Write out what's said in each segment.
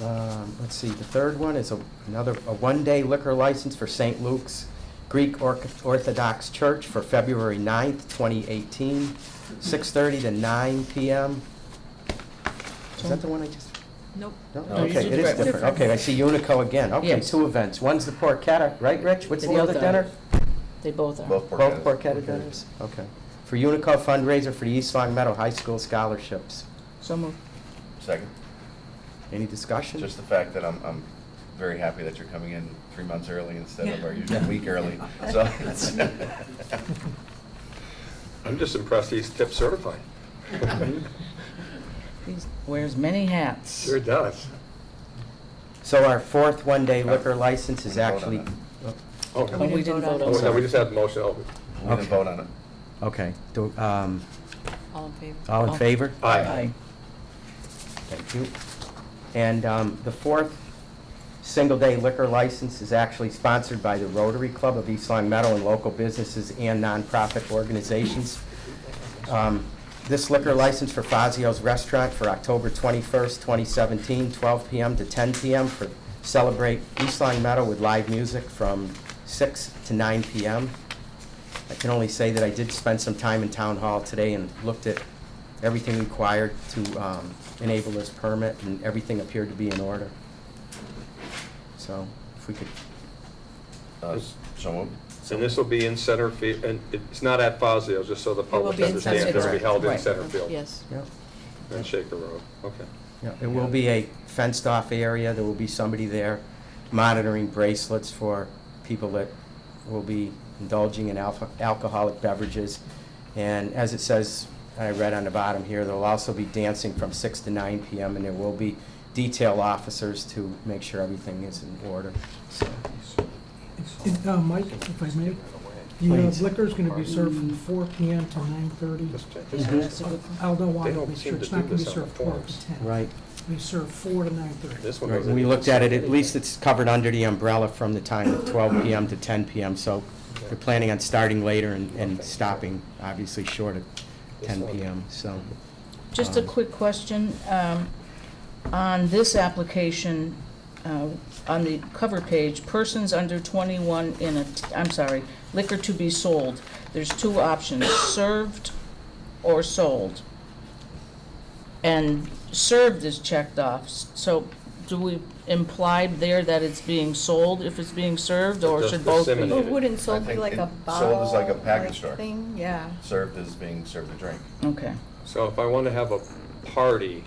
Um, Let's see, the third one is a- another, a one-day liquor license for St. Luke's Greek Or- Orthodox Church for February 9th, 2018, 6:30 to 9 PM. Is that the one I just? Nope. No, No, okay, it's it is different. different. Okay, I see Unico again. Okay, Yes. two events. One's the Porchetta, right, Rich? What's the Both other are. dinner? They both are. Both Both Porchettas. Porchetta dinners? Okay. For Unico fundraiser for the East Long Meadow High School scholarships. So moved. Second, Any discussion? just the fact that I'm, I'm very happy that you're coming in three months early instead of our usual week early, so. it's- I'm just impressed he's tip certified. He wears many hats. Sure does. So our fourth one-day liquor license is We vote on actually, it. oh, Oh, Oh, we didn't vote Oh, on no, that. we just had the motion, oh, We didn't Okay. vote on it. okay. Do- um, All in favor? All in favor? aye. Thank you. And um, the fourth single-day liquor license is actually sponsored by the Rotary Club of East Long Meadow and local businesses and nonprofit organizations. Um, This liquor license for Fazio's Restaurant for October 21st, 2017, 12 PM to 10 PM for Celebrate East Long Meadow with live music from 6 to 9 PM. I can only say that I did spend some time in town hall today and looked at everything required to um, enable this permit, and everything appeared to be in order. So if we could, Uh, s- So moved. And this will be in center field, and it's not at Fazio's, just so the will public be in center understands, it's gonna be field. held in Right. center field. Yes. Mm-hmm. yeah, And Shaker Road, okay. yeah, it will be a fenced-off area, there will be somebody there monitoring bracelets for people that will be indulging in alpha- alcoholic beverages. And as it says, I read on the bottom here, there'll also be dancing from six to nine PM, and there will be detail officers to make sure everything is in order, so. And, uh, Mike, if I may, the uh, Please. liquor's gonna be served from four P M to nine thirty. Just check this Mm-hmm. Mhm. out. That's a good point. Aldo They wanted don't to make seem sure to it's do not gonna be this on the served four forms. to ten. Right. We serve four to nine thirty. This one Right, goes when we in- looked at it, at least it's covered under the umbrella from the time of 12 PM to 10 PM, so they're planning on starting later and, and stopping, obviously, short of 10 PM, so. Just a Um, quick question. um, On this application, uh, on the cover page, persons under 21 in a, I'm sorry, liquor to be sold, there's two options, served or sold. And served is checked off, s- so do we imply there that it's being sold if it's being served, or Just should both be? disseminate. Well, wouldn't sold I be think like it- a sold bottle? is like a package like store. Thing, yeah. Served as being served a drink. Okay, So if I want to have a party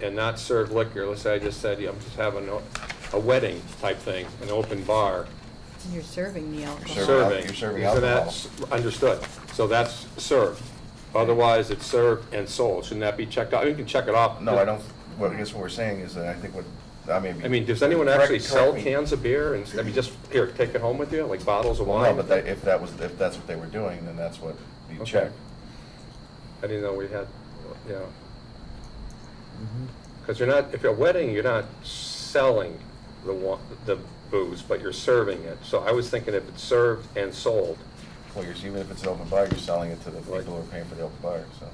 and not serve liquor, let's say I just said, yeah, I'm just having a- a wedding type thing, an open bar, You're serving the alcohol. Serving al- serving. you're serving So alcohol. that's Understood. So that's served. Otherwise, it's served and sold. Shouldn't that be checked out? You can check it off. No, I don't, well, I guess what we're saying is that I think what, I mean. I mean, does anyone actually correct- sell correct me. cans of beer and, I mean, just, here, take it home with you, like bottles of Well, wine? no, but that, if that was, if that's what they were doing, then that's what you Okay. check. I didn't know we had, yeah. Mm-hmm. Because you're not, if you're a wedding, you're not selling the wa, the booze, but you're serving it. So I was thinking if it's served and sold. Well, you're, even if it's an open bar, you're selling it to the people Right. who are paying for the open bar, so.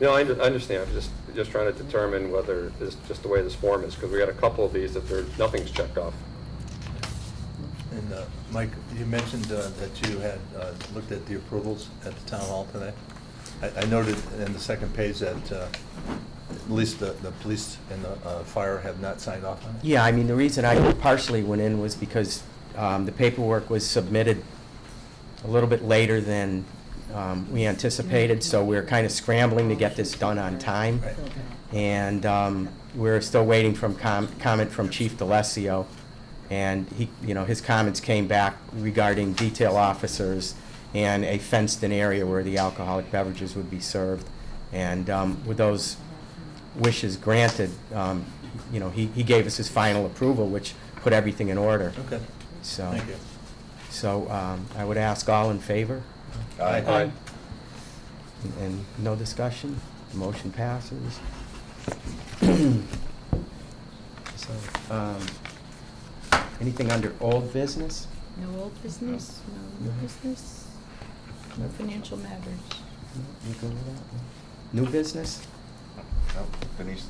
No, I under- I understand, I'm just, just trying to determine whether, it's just the way this form is, because we got a couple of these that there, nothing's checked off. And uh, Mike, you mentioned uh, that you had uh, looked at the approvals at the town hall today. I I noted in the second page that uh, at least the the police and the uh, fire have not signed off on it. Yeah, I mean, the reason I partially went in was because um, the paperwork was submitted a little bit later than um, we anticipated, so we we're kind of scrambling to get this done on time. Right. And um, we're still waiting from com- comment from Chief DeLassio. And he, you know, his comments came back regarding detail officers and a fenced-in area where the alcoholic beverages would be served. And um, with those wishes granted, um, you know, he he gave us his final approval, which put everything in order. Okay, So, thank you. so um, I would ask all in favor, Aye. Aye. and no discussion, The motion passes. So, um, anything under old business? No old business, no new No. business, no financial matters. No, you good with that? No? New business? No, Oh, Denise